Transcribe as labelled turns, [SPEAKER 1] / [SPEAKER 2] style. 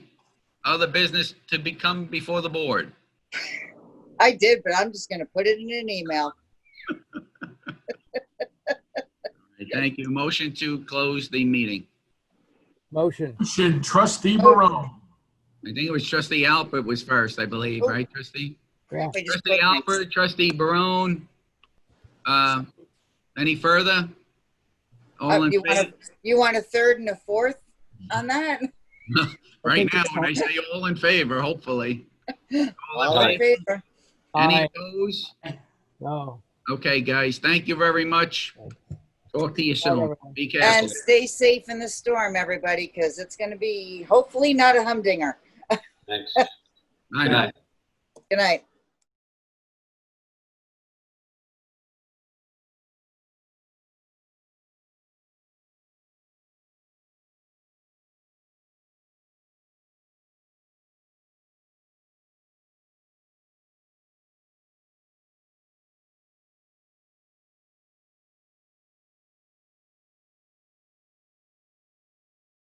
[SPEAKER 1] other business to become before the board?
[SPEAKER 2] I did, but I'm just gonna put it in an email.
[SPEAKER 1] Thank you. Motion to close the meeting.
[SPEAKER 3] Motion.
[SPEAKER 4] Motion, trustee Barone.
[SPEAKER 1] I think it was trustee Albert was first, I believe, right, trustee?
[SPEAKER 2] We just
[SPEAKER 1] Trustee
[SPEAKER 2] put Oh. next.
[SPEAKER 1] Albert, trustee Barone. Uh, Any further? All
[SPEAKER 2] Uh,
[SPEAKER 1] in
[SPEAKER 2] You want
[SPEAKER 1] favor? Mm-hmm.
[SPEAKER 2] a- you want a third and a fourth on that?
[SPEAKER 1] Right now, when I say all in favor, hopefully. All
[SPEAKER 2] All
[SPEAKER 1] in
[SPEAKER 2] in
[SPEAKER 1] favor?
[SPEAKER 2] favor?
[SPEAKER 1] Any
[SPEAKER 3] Aye.
[SPEAKER 1] opposed?
[SPEAKER 3] No.
[SPEAKER 1] Okay, guys, thank you very much. Talk to you soon. Be careful.
[SPEAKER 2] And stay safe in the storm, everybody, because it's gonna be hopefully not a humdinger.
[SPEAKER 5] Thanks.
[SPEAKER 1] I know.
[SPEAKER 2] Good night.